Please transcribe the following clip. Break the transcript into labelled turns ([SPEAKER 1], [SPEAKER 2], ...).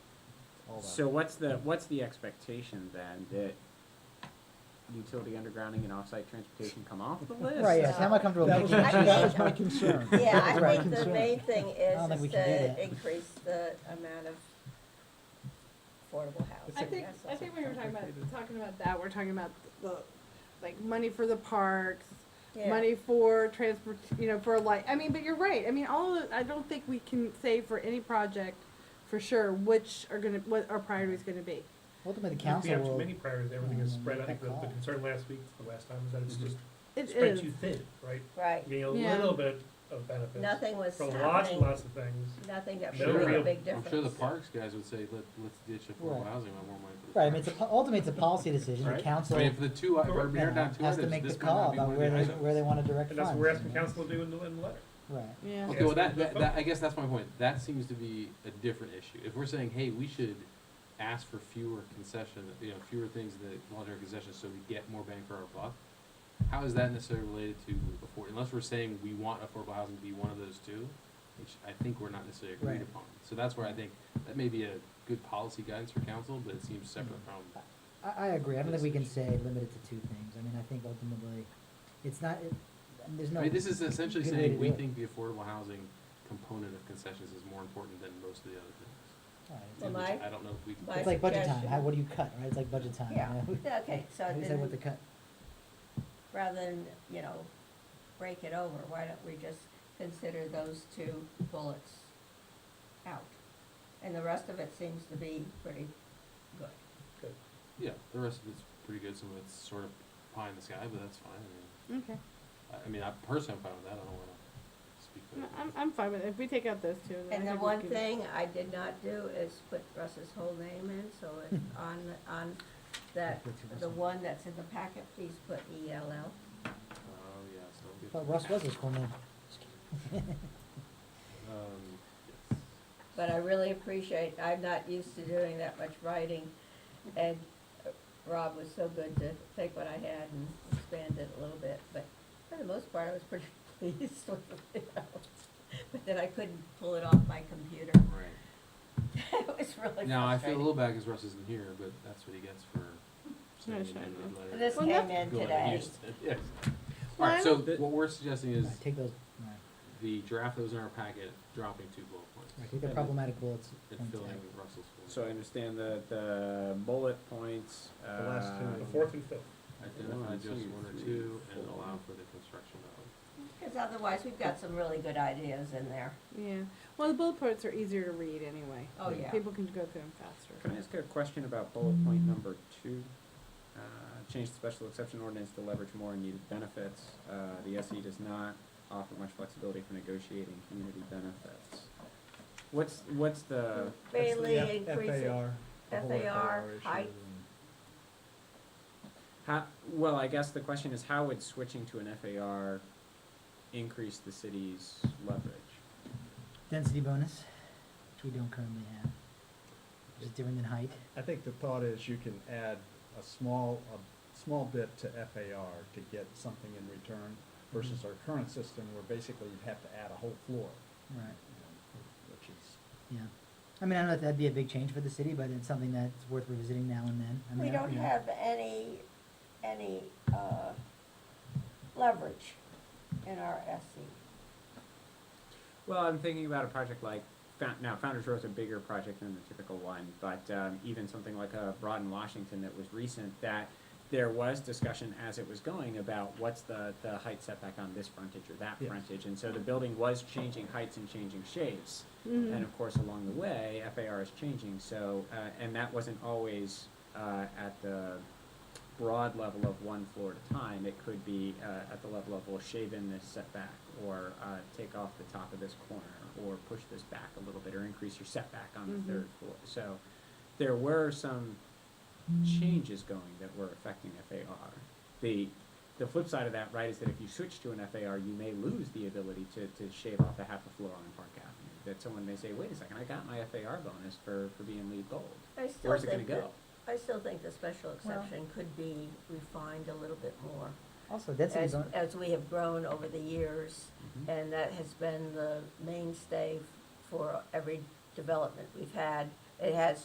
[SPEAKER 1] hold
[SPEAKER 2] So
[SPEAKER 1] on.
[SPEAKER 2] what's the, what's the expectation then, that utility undergrounding and off-site transportation come off the list?
[SPEAKER 3] Right, yes, how am I comfortable
[SPEAKER 1] That was,
[SPEAKER 3] making?
[SPEAKER 4] I
[SPEAKER 1] that was
[SPEAKER 4] mean-
[SPEAKER 1] my concern.
[SPEAKER 4] Yeah,
[SPEAKER 1] That was
[SPEAKER 4] I
[SPEAKER 1] my
[SPEAKER 4] think the
[SPEAKER 1] concern.
[SPEAKER 4] main thing
[SPEAKER 3] I don't
[SPEAKER 4] is
[SPEAKER 3] think we
[SPEAKER 4] is
[SPEAKER 3] can do
[SPEAKER 4] to
[SPEAKER 3] that.
[SPEAKER 4] increase the amount of affordable housing.
[SPEAKER 5] I think,
[SPEAKER 4] That's
[SPEAKER 5] I
[SPEAKER 4] all.
[SPEAKER 5] think when we were talking about, talking about that, we're talking about the, like, money for the parks,
[SPEAKER 4] Yeah.
[SPEAKER 5] money for transport, you know, for like, I mean, but you're right, I mean, all of, I don't think we can say for any project for sure which are gonna, what our priority's gonna be.
[SPEAKER 3] Ultimately, the
[SPEAKER 6] We
[SPEAKER 3] council
[SPEAKER 6] have too
[SPEAKER 3] will,
[SPEAKER 6] many priorities, everything is spread, I think the,
[SPEAKER 3] Mm,
[SPEAKER 6] the
[SPEAKER 3] that
[SPEAKER 6] concern last week, the last time, was that it's
[SPEAKER 2] Mhm.
[SPEAKER 6] just
[SPEAKER 5] It
[SPEAKER 6] spread
[SPEAKER 5] is,
[SPEAKER 6] too thin, right?
[SPEAKER 4] Right,
[SPEAKER 6] I mean, a
[SPEAKER 5] Yeah.
[SPEAKER 6] little bit of benefits
[SPEAKER 4] nothing was
[SPEAKER 6] for lots and
[SPEAKER 4] happening,
[SPEAKER 6] lots of things.
[SPEAKER 4] nothing that
[SPEAKER 6] No
[SPEAKER 4] would make a
[SPEAKER 6] real-
[SPEAKER 4] big
[SPEAKER 7] I'm sure the
[SPEAKER 4] difference.
[SPEAKER 7] parks guys would say, let, let's ditch affordable
[SPEAKER 3] Right.
[SPEAKER 7] housing, I want money for the
[SPEAKER 3] right, I mean,
[SPEAKER 7] parks.
[SPEAKER 3] it's a, po- ultimately, it's a policy decision, the
[SPEAKER 7] Right?
[SPEAKER 3] council,
[SPEAKER 7] I mean,
[SPEAKER 3] you
[SPEAKER 7] if the two, if we're
[SPEAKER 3] know,
[SPEAKER 7] narrowed down two
[SPEAKER 3] has to
[SPEAKER 7] items,
[SPEAKER 3] make the
[SPEAKER 7] this might not
[SPEAKER 3] call
[SPEAKER 7] be
[SPEAKER 3] about
[SPEAKER 7] one of
[SPEAKER 3] where
[SPEAKER 7] the
[SPEAKER 3] they,
[SPEAKER 7] items.
[SPEAKER 3] where they wanna direct
[SPEAKER 6] And that's
[SPEAKER 3] funds.
[SPEAKER 6] what we're asking
[SPEAKER 3] you know?
[SPEAKER 6] council to do in the, in the letter.
[SPEAKER 3] Right,
[SPEAKER 5] yeah.
[SPEAKER 7] Okay, well,
[SPEAKER 6] Yeah,
[SPEAKER 7] that,
[SPEAKER 6] it's
[SPEAKER 7] that,
[SPEAKER 6] not
[SPEAKER 7] that, I guess that's my point, that seems to be a different issue, if we're saying, hey, we should ask for fewer concession, you know, fewer things in the voluntary concessions, so we get more bang for our buck, how is that necessarily related to afford, unless we're saying we want affordable housing to be one of those two, which I think we're not necessarily agreed
[SPEAKER 3] Right.
[SPEAKER 7] upon, so that's where I think, that may be a good policy guidance for council, but it seems separate from,
[SPEAKER 3] Mm. I, I agree, I don't think we can say limited to two things, I mean, I think ultimately, it's not, it, and there's no.
[SPEAKER 7] I mean, this is essentially
[SPEAKER 3] good way to
[SPEAKER 7] saying, we
[SPEAKER 3] do it.
[SPEAKER 7] think the affordable housing component of concessions is more important than most of the other things,
[SPEAKER 3] Right, it's-
[SPEAKER 4] Well,
[SPEAKER 7] and
[SPEAKER 4] my-
[SPEAKER 7] which I don't know if we.
[SPEAKER 4] my
[SPEAKER 3] It's like budget time,
[SPEAKER 4] suggestion-
[SPEAKER 3] how, what do you cut, right, it's like budget time, you
[SPEAKER 4] Yeah.
[SPEAKER 3] know?
[SPEAKER 4] Yeah, okay, so
[SPEAKER 3] Who said
[SPEAKER 4] then-
[SPEAKER 3] what to cut?
[SPEAKER 4] Rather than, you know, break it over, why don't we just consider those two bullets out? And the rest of it seems to be pretty good.
[SPEAKER 7] Yeah, the rest of it's pretty good. Some of it's sort of pie in the sky, but that's fine. I
[SPEAKER 5] Okay,
[SPEAKER 7] mean, I, I, mean, I personally am fine with that. I don't want to speak for
[SPEAKER 5] No,
[SPEAKER 7] everybody.
[SPEAKER 5] I'm, I'm fine with it, if we take out those two, then I
[SPEAKER 4] And the
[SPEAKER 5] think we
[SPEAKER 4] one
[SPEAKER 5] can-
[SPEAKER 4] thing I did not do is put Russ's whole name in, so it's on, on that, the one that's in the packet, please put E ELL.
[SPEAKER 7] Oh yeah, so I'll get
[SPEAKER 3] But
[SPEAKER 7] to
[SPEAKER 3] Russ
[SPEAKER 7] that.
[SPEAKER 3] was his cool name.
[SPEAKER 7] Um, yes.
[SPEAKER 4] But I really appreciate, I'm not used to doing that much writing, and uh, Rob was so good to take what I had and expand it a little bit, but for the most part, I was pretty pleased with it. But then I couldn't pull it off my computer,
[SPEAKER 7] Right.
[SPEAKER 4] it was really
[SPEAKER 7] Now I feel a
[SPEAKER 4] frustrating.
[SPEAKER 7] little bad because Russ isn't here, but that's what he gets for sending
[SPEAKER 5] sure,
[SPEAKER 7] an amended letter.
[SPEAKER 4] This
[SPEAKER 5] Well,
[SPEAKER 4] came
[SPEAKER 5] that's-
[SPEAKER 4] in
[SPEAKER 7] Go ahead,
[SPEAKER 4] today,
[SPEAKER 7] use it. Yes. All right. So
[SPEAKER 2] Well, I-
[SPEAKER 7] what we're suggesting is
[SPEAKER 3] Right, Take those, right,
[SPEAKER 7] the draft that was in our packet dropping two bullet points
[SPEAKER 3] right, take the
[SPEAKER 7] and-
[SPEAKER 3] problematic bullets.
[SPEAKER 7] and
[SPEAKER 3] points
[SPEAKER 7] filling
[SPEAKER 3] out.
[SPEAKER 7] Russell's. bullet.
[SPEAKER 2] So I understand the, the bullet points, uh.
[SPEAKER 1] The last two.
[SPEAKER 6] The fourth and fifth.
[SPEAKER 7] Identify
[SPEAKER 1] One,
[SPEAKER 7] just
[SPEAKER 1] two,
[SPEAKER 7] one or
[SPEAKER 1] three,
[SPEAKER 7] two and
[SPEAKER 1] four.
[SPEAKER 7] allow for the construction of.
[SPEAKER 4] because otherwise, we've got some really good ideas in there.
[SPEAKER 5] Yeah, well, the bullet points are easier to read anyway.
[SPEAKER 4] Oh, yeah.
[SPEAKER 5] People can go through them faster.
[SPEAKER 2] Can I ask a question about bullet point number two? Uh, Change the special exception ordinance to leverage more needed benefits. Uh, The SE does not offer much flexibility for negotiating community benefits. What's, what's the,
[SPEAKER 1] That's the
[SPEAKER 4] Mainly
[SPEAKER 1] F-
[SPEAKER 4] increasing,
[SPEAKER 1] FAR. the whole
[SPEAKER 4] FAR,
[SPEAKER 1] issue
[SPEAKER 4] height.
[SPEAKER 1] and-
[SPEAKER 2] how, well, I guess the question is how would switching to an FAR increase the city's leverage?
[SPEAKER 3] Density bonus, which we don't currently have, which is different than height.
[SPEAKER 1] I think the thought is you can add a small, a small bit to FAR to get something in return versus our current system where basically you'd have to add a whole floor,
[SPEAKER 3] Right,
[SPEAKER 1] you know, which is.
[SPEAKER 3] yeah. I mean, I don't know if that'd be a big change for the city, but it's something that's worth revisiting now and then. I
[SPEAKER 4] we
[SPEAKER 3] mean, I-
[SPEAKER 4] don't
[SPEAKER 3] you know,
[SPEAKER 4] have any, any, uh, leverage in our E. SE.
[SPEAKER 2] Well, I'm thinking about a project like, Found- now Founder's Row is a bigger project than the typical one, but um, even something like a Broad in Washington that was recent, that there was discussion as it was going about what's the, the height setback on this frontage or that
[SPEAKER 1] Yes.
[SPEAKER 2] frontage. And so the building was changing heights and changing shapes.
[SPEAKER 5] Mm-hmm.
[SPEAKER 2] And of course, along the way, FAR is changing, so, uh, and that wasn't always uh, at the broad level of one floor at a time. It could be uh, at the level of, well, shave in this setback, or uh, take off the top of this corner, or push this back a little bit, or increase your setback on
[SPEAKER 5] Mhm.
[SPEAKER 2] the third floor. So there were some changes going that were affecting FAR. The, the flip side of that, right, is that if you switch to an FAR, you may lose the ability to, to shave off a half a floor on Park Avenue. That someone may say, wait a second, I got my FAR bonus for, for being lead gold.
[SPEAKER 4] I still
[SPEAKER 2] Where's it gonna
[SPEAKER 4] think
[SPEAKER 2] go?
[SPEAKER 4] that- I still think the special exception could be refined a little bit more.
[SPEAKER 3] Also, density
[SPEAKER 4] As,
[SPEAKER 3] bonus,
[SPEAKER 4] as we have grown over the years,
[SPEAKER 2] Mm-hmm.
[SPEAKER 4] and that has been the mainstay for every development we've had. It has